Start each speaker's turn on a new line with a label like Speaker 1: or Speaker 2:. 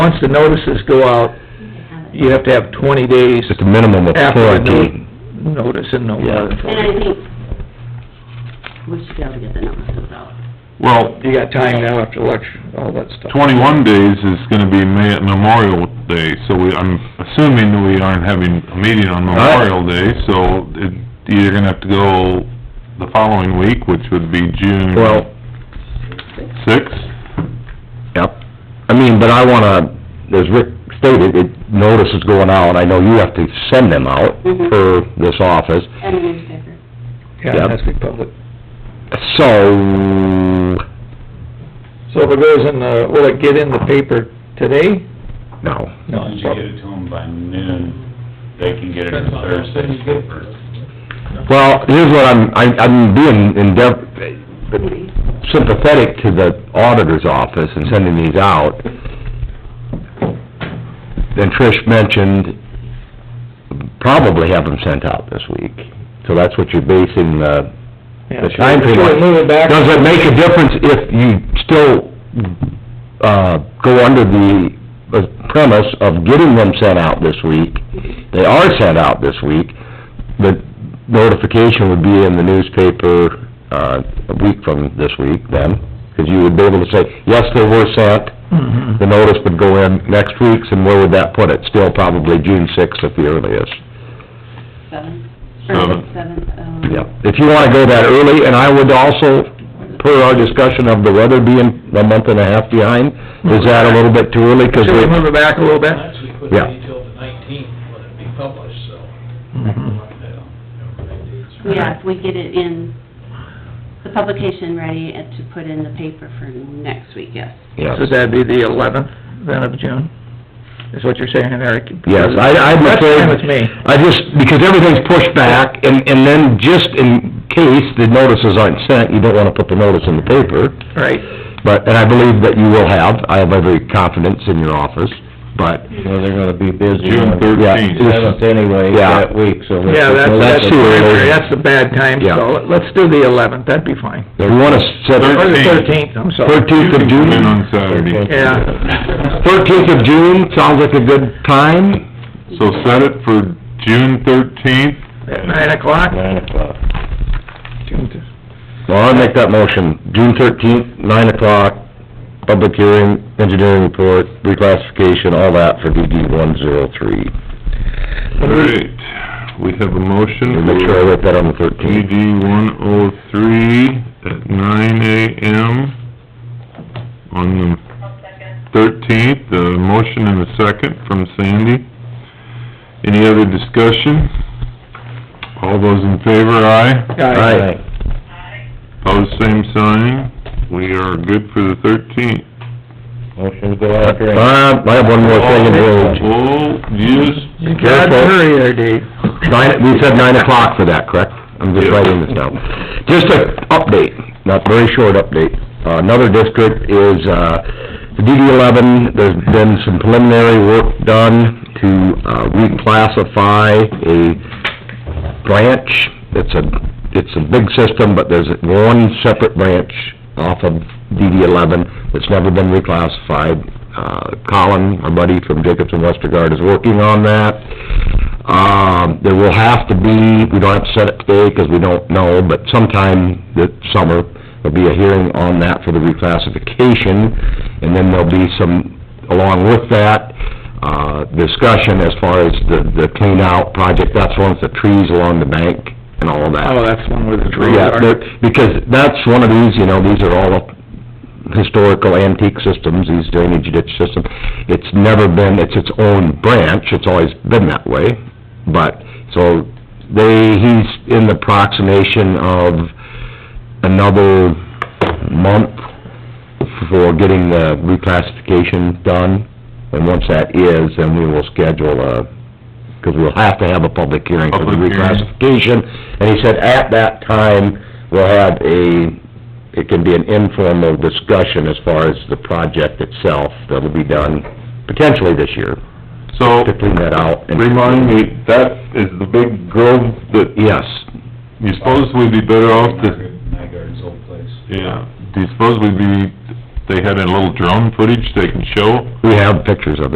Speaker 1: once the notices go out, you have to have twenty days
Speaker 2: Just a minimum of
Speaker 1: after the
Speaker 2: quarantine.
Speaker 1: no- notice and no more than
Speaker 3: And I
Speaker 1: forty.
Speaker 3: think we should be able to get the notices out.
Speaker 4: Well,
Speaker 1: You got time now after election, all that stuff.
Speaker 4: twenty-one days is gonna be Ma- Memorial Day, so we, I'm assuming that we aren't having a meeting on Memorial Day, so it, you're gonna have to go the following week, which would be June
Speaker 2: Well,
Speaker 4: sixth.
Speaker 2: yep. I mean, but I wanna, as Rick stated, it, notices going out, I know you have to send them out
Speaker 3: Mhm.
Speaker 2: for this office.
Speaker 3: And the newspaper.
Speaker 1: Yeah,
Speaker 2: Yep.
Speaker 1: it has to be public.
Speaker 2: So,
Speaker 1: So if it goes in the, will it get in the paper today?
Speaker 2: no,
Speaker 1: No.
Speaker 5: Once you get it to them by noon, they can get it in Thursday's paper.
Speaker 2: well, here's what I'm, I- I'm being endeav- sympathetic to the auditor's office in sending these out. Then Trish mentioned, probably have them sent out this week. So that's what you're basing the
Speaker 1: Yeah,
Speaker 2: the
Speaker 1: should we-
Speaker 2: time period.
Speaker 1: Should we move it back?
Speaker 2: Does it make a difference if you still, uh, go under the uh, premise of getting them sent out this week? They are sent out this week, the notification would be in the newspaper, uh, a week from this week then, because you would be able to say, yes, they were sent,
Speaker 1: Mhm.
Speaker 2: the notice would go in next week's, and where would that put it? Still probably June sixth at the earliest.
Speaker 3: Seven?
Speaker 4: Seven.
Speaker 3: Seven, um.
Speaker 2: Yeah, if you wanna go that early, and I would also, per our discussion of the weather being a month and a half behind, is that a little bit too early? 'Cause
Speaker 1: Should we move
Speaker 2: we,
Speaker 1: it back a little bit?
Speaker 6: Actually, put
Speaker 2: Yeah.
Speaker 6: it till the nineteenth when it be published, so.
Speaker 1: Mhm.
Speaker 3: Yeah, if we get it in, the publication ready and to put in the paper for next week, yes.
Speaker 2: yeah.
Speaker 1: So that'd be the eleventh then of June, is what you're saying, Eric?
Speaker 2: Yes, I, I'm
Speaker 1: That's
Speaker 2: afraid...
Speaker 1: fine with me.
Speaker 2: I just, because everything's pushed back, and, and then just in case the notices aren't sent, you don't wanna put the notice in the paper,
Speaker 1: Right.
Speaker 2: but, and I believe that you will have, I have every confidence in your office, but...
Speaker 7: Well, they're gonna be busy.
Speaker 4: June
Speaker 7: on the
Speaker 4: thirteenth.
Speaker 7: Seventh anyway,
Speaker 2: Yeah.
Speaker 7: that week, so. let's
Speaker 1: Yeah,
Speaker 7: just
Speaker 1: that's,
Speaker 7: let
Speaker 1: that's,
Speaker 2: too early.
Speaker 1: that's the bad time,
Speaker 2: Yeah.
Speaker 1: so let's do the eleventh, that'd be fine.
Speaker 2: We wanna set...
Speaker 1: Or the
Speaker 4: Thirteenth.
Speaker 1: thirteenth, I'm sorry.
Speaker 2: Thirteenth of June?
Speaker 4: You can come in on Saturday,
Speaker 1: Yeah.
Speaker 2: Thirteenth of June, sounds like a good time.
Speaker 4: so set it for June thirteenth.
Speaker 1: At nine o'clock?
Speaker 7: Nine o'clock.
Speaker 1: June th-
Speaker 2: Well, I'll make that motion. June thirteenth, nine o'clock, public hearing, engineering report, reclassification, all that for DD one zero three.
Speaker 4: All right, we have a motion.
Speaker 2: Make sure I
Speaker 4: for-
Speaker 2: write that on the thirteenth.
Speaker 4: DD one oh three at nine AM on the thirteenth, the motion and a second from Sandy. Any other discussion? All those in favor, aye.
Speaker 1: Aye.
Speaker 4: Pose same sign. We are good for the thirteenth.
Speaker 7: Motion to go out there and
Speaker 2: Bob, Uh, I have one more thing in road.
Speaker 4: Oh, yes,
Speaker 1: You got to hurry there, Dave.
Speaker 2: Nine, we said nine o'clock for that, correct? I'm just
Speaker 4: Yeah.
Speaker 2: writing this down. Just a update, not very short update. Uh, Another district is, uh, the DD eleven, there's been some preliminary work done to uh, reclassify a branch. It's a, it's a big system, but there's one separate branch off of DD eleven that's never been reclassified. Uh, Colin, our buddy from Jacobson Westergaard, is working on that. Um, there will have to be, we don't have to set it today because we don't know, but sometime this summer, there'll be a hearing on that for the reclassification, and then there'll be some, along with that, uh, discussion as far as the, the clean out project, that's one of the trees along the bank and all of that.
Speaker 1: Oh, that's one where the trees
Speaker 2: Yeah,
Speaker 1: are.
Speaker 2: they're- because that's one of these, you know, these are all historical antique systems, these drainage ditch systems. It's never been, it's its own branch, it's always been that way, but, so, they, he's in the proximation of another month for getting the reclassification done, and once that is, then we will schedule a, because we'll have to have a public hearing for the
Speaker 4: Public hearing.
Speaker 2: reclassification. And he said at that time, we'll have a, it can be an informal discussion as far as the project itself that'll be done potentially this year,
Speaker 4: so,
Speaker 2: to clean that out. and-
Speaker 4: remind me, that is the big grove that
Speaker 2: Yes.
Speaker 4: you Oh, suppose we'd be better off to
Speaker 5: Nygaard's old place.
Speaker 4: Yeah, do you suppose we'd be, they had a little drone footage they can show?
Speaker 2: We have pictures of it.